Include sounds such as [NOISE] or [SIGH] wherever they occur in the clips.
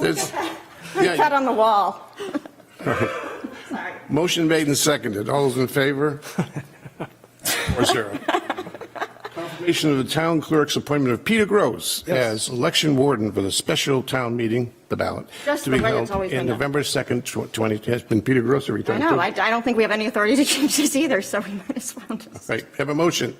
There's- Cut yeah, on the wall. Motion made and seconded. All those in favor? [LAUGHS] Four zero. Confirmation of the town clerk's appointment of Peter Gross as election warden for the special town meeting, the ballot, Just to the be way it's held always in been done. November 2nd, tw- 20, has been Peter Gross every I time. know, too. I, I don't think we have any authority to [LAUGHS] change this either, so we might as well just. Right, have a motion.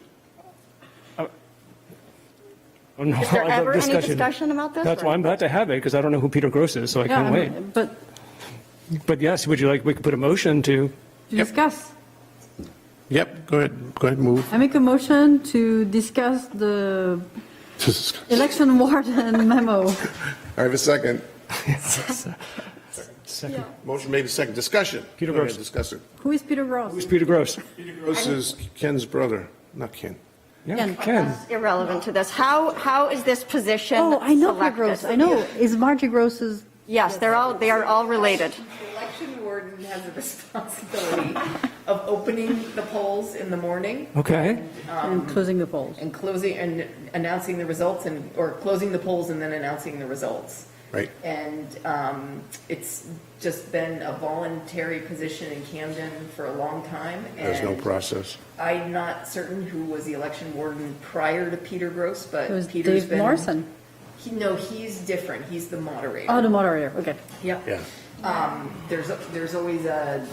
Oh, no, Is there I love ever any discussion about this, That's or- why I'm glad to have it, because I don't know who Peter Gross is, so I Yeah, can wait. I'm- But But yes, would you like, we could put a motion to, to Yep. discuss, Yep, go ahead, go ahead, move. [LAUGHS] I make a motion to discuss the election [LAUGHS] warden memo. I have a second. second, Motion made and seconded. Discussion. Peter Go ahead, Gross. Discuss it. Who is Peter Oh, Ross? who's Peter Gross? Peter Gross is Ken's brother, not Ken. Yeah, Ken. Ken. Irrelevant to this. How, how is this position Oh, I know Peter selected? Gross, I know, is Margie Gross's, Yes, they're all, they are all related. The election warden has the [LAUGHS] responsibility of opening the polls in the morning Okay, and closing the polls. and closing, and announcing the results and, or closing the polls and then announcing the results. Right. And um, it's just been a voluntary position in Camden for a long time. There's no and process. I'm not certain who was the election warden prior to Peter Gross, but It was Peter's Dave been. Morrison. He, no, he's different. He's the moderator. Oh, the moderator, okay. Yep. Yeah. Um, there's, there's always a,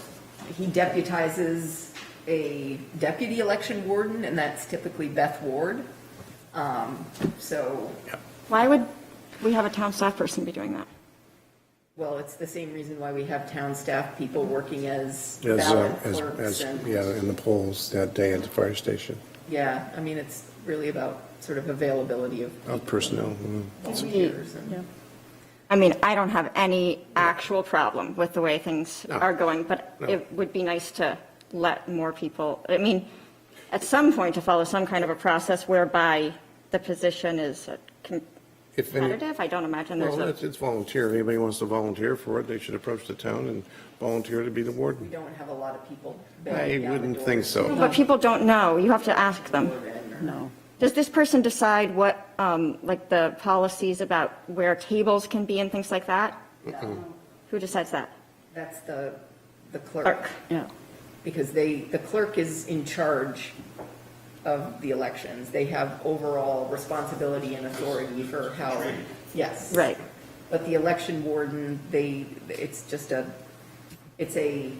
he deputizes a deputy election warden, and that's typically Beth Ward. Um, so, Why would we have a town staff person be doing that? well, it's the same reason why we have town staff people working as As, uh, ballot as, clerks as, and, yeah, in the polls that day at the fire station, yeah, I mean, it's really about sort of availability of of personnel. mm. volunteers and. Yeah. I mean, I don't have any actual problem with the way things No. are going, but No. it would be nice to let more people, I mean, at some point to follow some kind of a process whereby the position is uh, com- If any, competitive. I don't imagine there's well, a. it's it's volunteer. If anybody wants to volunteer for it, they should approach the town and volunteer to be the We warden. don't have a lot of people. banging I down the wouldn't door. think so. But people don't know. You have to ask them. No. Does this person decide what, um, like the policies about where tables can be and things like that? Who decides that? That's the, the Clerk. clerk. Yeah. because they, the clerk is in charge of the elections. They have overall responsibility and authority for how, yes. Right. But the election warden, they, it's just a, it's a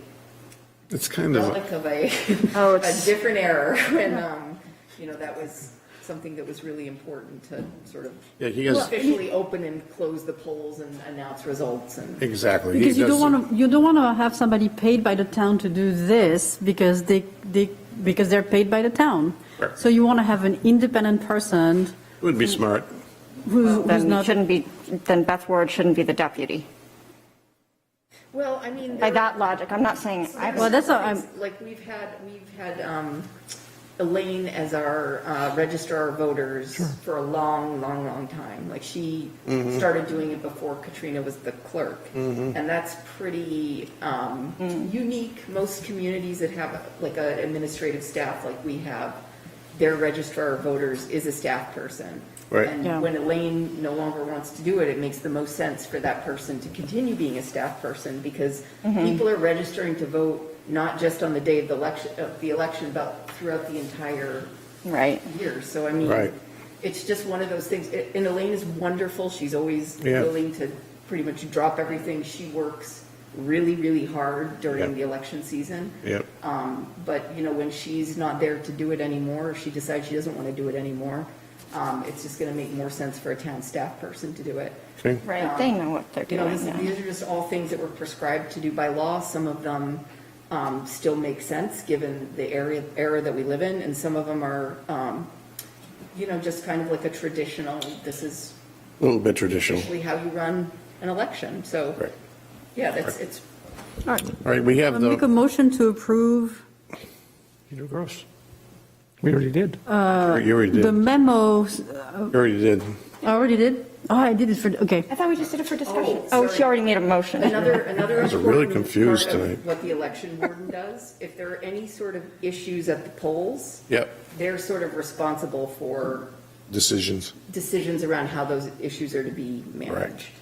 It's kind of, a- relic of a, Oh, [LAUGHS] a it's- different era. And, um, you know, that was something that was really important to sort of yeah, he has, officially open and close the polls and announce results and. exactly. He Because you don't does- want to, you don't want to have somebody paid by the town to do this because they, they, because they're paid by the town. Right. So you want to have an independent person Would be smart. who's, who's Then not. shouldn't be, then Beth Ward shouldn't be the deputy. Well, I mean. By that logic, I'm not saying, I, Well, that's what I'm- Like, we've had, we've had um, Elaine as our uh, registrar of voters for a long, long, long time. Like, she started doing it before Katrina was the clerk. And that's pretty um, Mm. unique. Most communities that have like an administrative staff like we have, their registrar of voters is a staff person. Right. And Yeah. when Elaine no longer wants to do it, it makes the most sense for that person to continue being a staff person because Mm-hmm. people are registering to vote not just on the day of the election, of the election, but throughout the entire right. year. So I mean, Right. it's just one of those things. A- And Elaine is wonderful. She's always Yeah. willing to pretty much drop everything. She works really, really hard during Yep. the election season. Yep. Um, but you know, when she's not there to do it anymore, or she decides she doesn't want to do it anymore, um, it's just going to make more sense for a town staff person to do it. Okay. Right, they know what they're You know, doing, this- yeah. these are just all things that were prescribed to do by law. Some of them um, still make sense, given the area, era that we live in, and some of them are, um, you know, just kind of like a traditional, this is A little bit traditional. actually how you run an election. So, Right. yeah, that's, it's All right, we have Make a the, motion to approve Peter Gross. We already did. you already the did, memo, you already did. I already did? Oh, I did it for, okay. I thought we just did it for discussion. Oh, Oh, sorry. she already made a motion. Another, another guys are really important confused part of tonight. What the election warden does, if there are any sort of issues at the polls. Yep. They're sort of responsible for decisions. decisions around how those issues are to be managed.